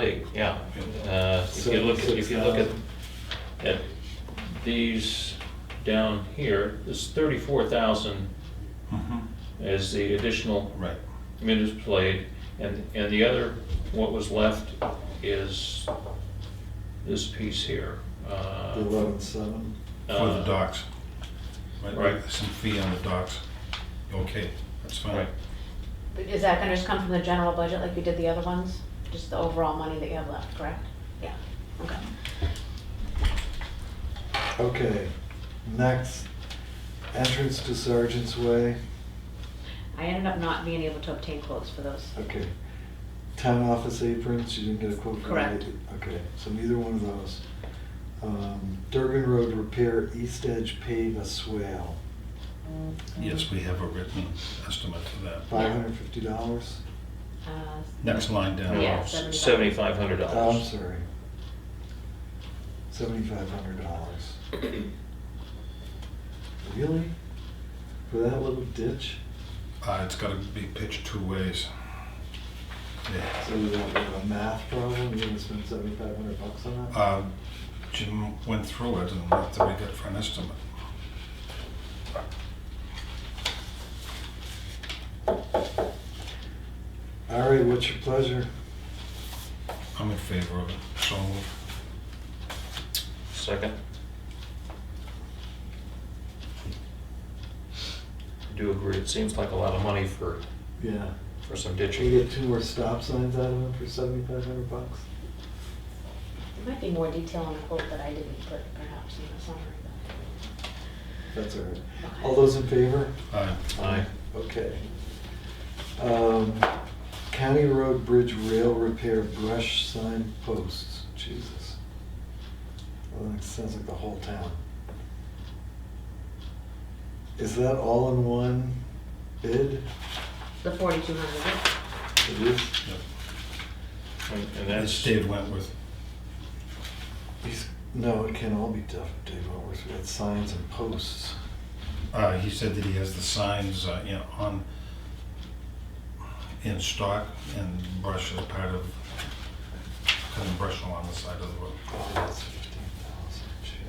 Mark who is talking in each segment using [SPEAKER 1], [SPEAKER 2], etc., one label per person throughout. [SPEAKER 1] great, yeah. Uh, If you look, if you look at, at these down here, this thirty-four thousand
[SPEAKER 2] Mhm.
[SPEAKER 1] Mm-hmm. is the additional
[SPEAKER 2] Right,
[SPEAKER 1] minutes played, and, and the other, what was left is this piece here. uh,
[SPEAKER 3] Eleven seven.
[SPEAKER 2] for the
[SPEAKER 1] uh,
[SPEAKER 2] docks.
[SPEAKER 1] Right.
[SPEAKER 2] Some fee on the docks. Okay, that's fine.
[SPEAKER 1] Right.
[SPEAKER 4] Is that gonna just come from the general budget like you did the other ones? Just the overall money that you have left, correct? Yeah, okay.
[SPEAKER 3] Okay, next, entrance to Sergeant's Way,
[SPEAKER 4] I ended up not being able to obtain quotes for those.
[SPEAKER 3] okay. Town office aprons, you didn't get a quote from
[SPEAKER 4] Correct.
[SPEAKER 3] either- Okay, so neither one of those. Um, Durgan Road repair, east edge pave a swale,
[SPEAKER 2] Yes, we have a written estimate for that.
[SPEAKER 3] five hundred fifty dollars?
[SPEAKER 4] Uh,
[SPEAKER 2] Next line down.
[SPEAKER 4] Yeah,
[SPEAKER 1] Oh, Seventy-five hundred
[SPEAKER 3] I'm
[SPEAKER 1] dollars.
[SPEAKER 3] sorry. Seventy-five hundred dollars. Really? For that little ditch?
[SPEAKER 2] Uh, it's gotta be pitched two ways. Yeah.
[SPEAKER 3] So we don't have a math problem, you're gonna spend seventy-five hundred bucks on that?
[SPEAKER 2] Uh, Jim went through it and what did we get for an estimate?
[SPEAKER 3] All right, what's your pleasure?
[SPEAKER 2] I'm in favor of it, so moved.
[SPEAKER 1] Second. I do agree, it seems like a lot of money for,
[SPEAKER 3] Yeah.
[SPEAKER 1] for some
[SPEAKER 3] Can we
[SPEAKER 1] ditching.
[SPEAKER 3] get two more stop signs out of him for seventy-five hundred bucks?
[SPEAKER 4] There might be more detail on the quote that I didn't put perhaps in the summary.
[SPEAKER 3] That's all right.
[SPEAKER 4] but-
[SPEAKER 3] All those in favor?
[SPEAKER 2] Aye.
[SPEAKER 1] Aye.
[SPEAKER 3] Okay. Um, County Road Bridge Rail Repair Brush Sign Posts, Jesus. Well, that sounds like the whole town. Is that all in one bid?
[SPEAKER 4] The forty-two hundred.
[SPEAKER 3] It is,
[SPEAKER 2] Yep.
[SPEAKER 1] And and
[SPEAKER 2] That's
[SPEAKER 1] that's,
[SPEAKER 2] Dave Wentworth.
[SPEAKER 3] he's, no, it can't all be Dave Dave Wentworth, we had signs and posts.
[SPEAKER 2] Uh, he said that he has the signs, uh, you know, on, in stock and brush is part of, kind of brush along the side of the road.
[SPEAKER 3] Oh, that's fifteen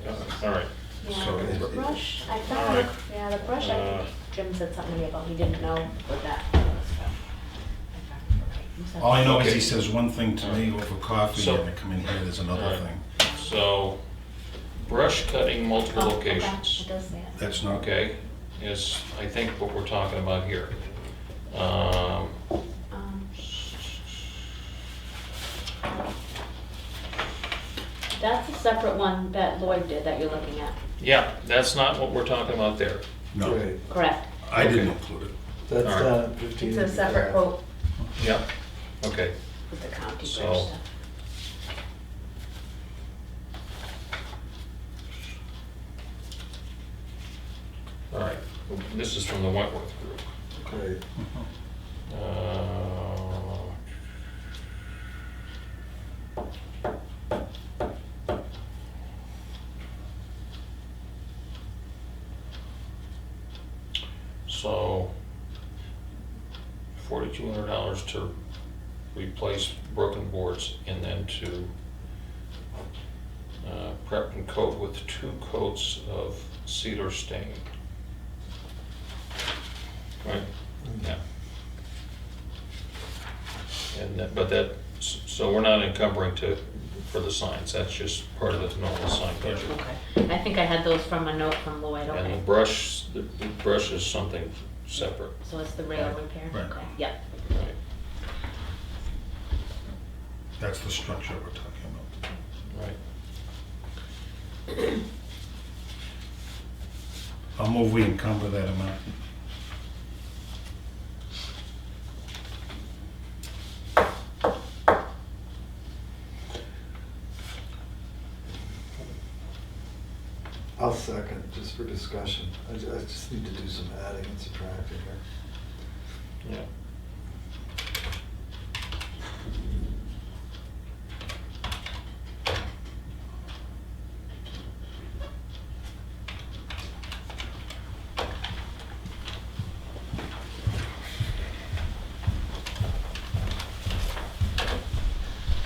[SPEAKER 3] thousand,
[SPEAKER 1] uh,
[SPEAKER 3] Jesus.
[SPEAKER 1] all right.
[SPEAKER 2] So
[SPEAKER 4] Yeah, the
[SPEAKER 2] it-
[SPEAKER 4] brush, I
[SPEAKER 1] All
[SPEAKER 4] thought,
[SPEAKER 1] right.
[SPEAKER 4] yeah, the brush, I
[SPEAKER 1] Uh,
[SPEAKER 4] think Jim said something to me about he didn't know what that was. so. Okay, you said-
[SPEAKER 2] All I know is
[SPEAKER 1] Okay.
[SPEAKER 2] he says one thing to me over coffee,
[SPEAKER 1] So-
[SPEAKER 2] and I come in here, there's another
[SPEAKER 1] Alright.
[SPEAKER 2] thing.
[SPEAKER 1] So, brush cutting multiple
[SPEAKER 4] Oh, okay, It
[SPEAKER 1] locations,
[SPEAKER 4] does say it.
[SPEAKER 2] That's not,
[SPEAKER 1] okay, is, I think, what we're talking about here. Um,
[SPEAKER 4] Um, That's a separate one that Lloyd did that you're looking at,
[SPEAKER 1] Yeah, that's not what we're talking about there.
[SPEAKER 2] no,
[SPEAKER 3] Right,
[SPEAKER 4] correct?
[SPEAKER 2] I didn't
[SPEAKER 1] Okay.
[SPEAKER 2] include it.
[SPEAKER 3] that's
[SPEAKER 1] All right.
[SPEAKER 3] down at fifteen.
[SPEAKER 4] It's a separate quote
[SPEAKER 1] Yeah, okay.
[SPEAKER 4] with the county bridge
[SPEAKER 1] So-
[SPEAKER 4] stuff.
[SPEAKER 1] All right, this is from the Wentworth Group.
[SPEAKER 3] Right.
[SPEAKER 1] Uh, So, forty-two hundred dollars to replace broken boards and then to uh, prep and coat with two coats of cedar stain. Right? Yeah. And, that- but that, so we're not encumbering to, for the signs, that's just part of the normal sign budget.
[SPEAKER 4] Okay, I think I had those from a note from
[SPEAKER 1] And
[SPEAKER 4] Lloyd,
[SPEAKER 1] the
[SPEAKER 4] okay.
[SPEAKER 1] brush, the the brush is something separate.
[SPEAKER 4] So it's the rail repair?
[SPEAKER 2] Right.
[SPEAKER 4] Okay, Yep,
[SPEAKER 1] Right.
[SPEAKER 2] That's the structure we're talking about.
[SPEAKER 1] Right.
[SPEAKER 2] I'll move we encumber that amount.
[SPEAKER 3] I'll second, just for discussion. I, ju- I just need to do some adding and subtracting here.
[SPEAKER 1] Yeah.